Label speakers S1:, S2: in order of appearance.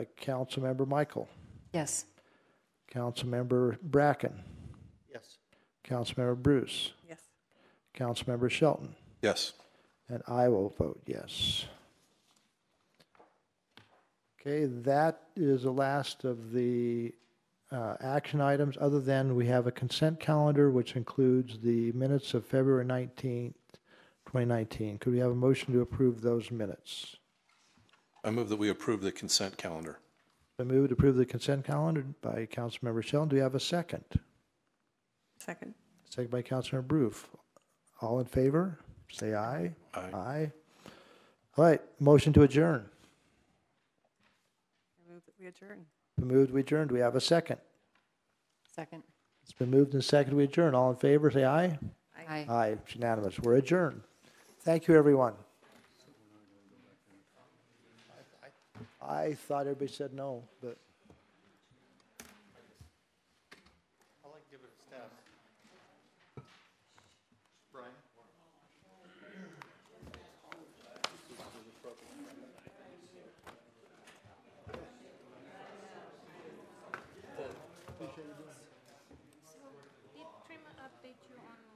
S1: by Councilmember Michael,
S2: Yes.
S1: Councilmember Bracken,
S3: Yes.
S1: Councilmember Bruce,
S2: Yes.
S1: Councilmember Shelton,
S3: Yes.
S1: and I will vote yes. Okay, that is the last of the uh, action items, other than we have a consent calendar, which includes the minutes of February 19th, 2019. Could we have a motion to approve those minutes?
S3: I move that we approve the consent calendar.
S1: I move to approve the consent calendar by Councilmember Sheldon. Do we have a second?
S2: Second.
S1: Second by Councilmember Roof. All in favor, say aye.
S3: Aye.
S1: Aye. All right, motion to adjourn.
S2: I move that we adjourn.
S1: Been moved, we adjourn. Do we have a second?
S2: Second.
S1: It's been moved and seconded, we adjourn. All in favor, say aye.
S2: Aye.
S1: Aye, it's unanimous. We're adjourned. Thank you, everyone. I thought everybody said no, but.
S4: Did Trim update you on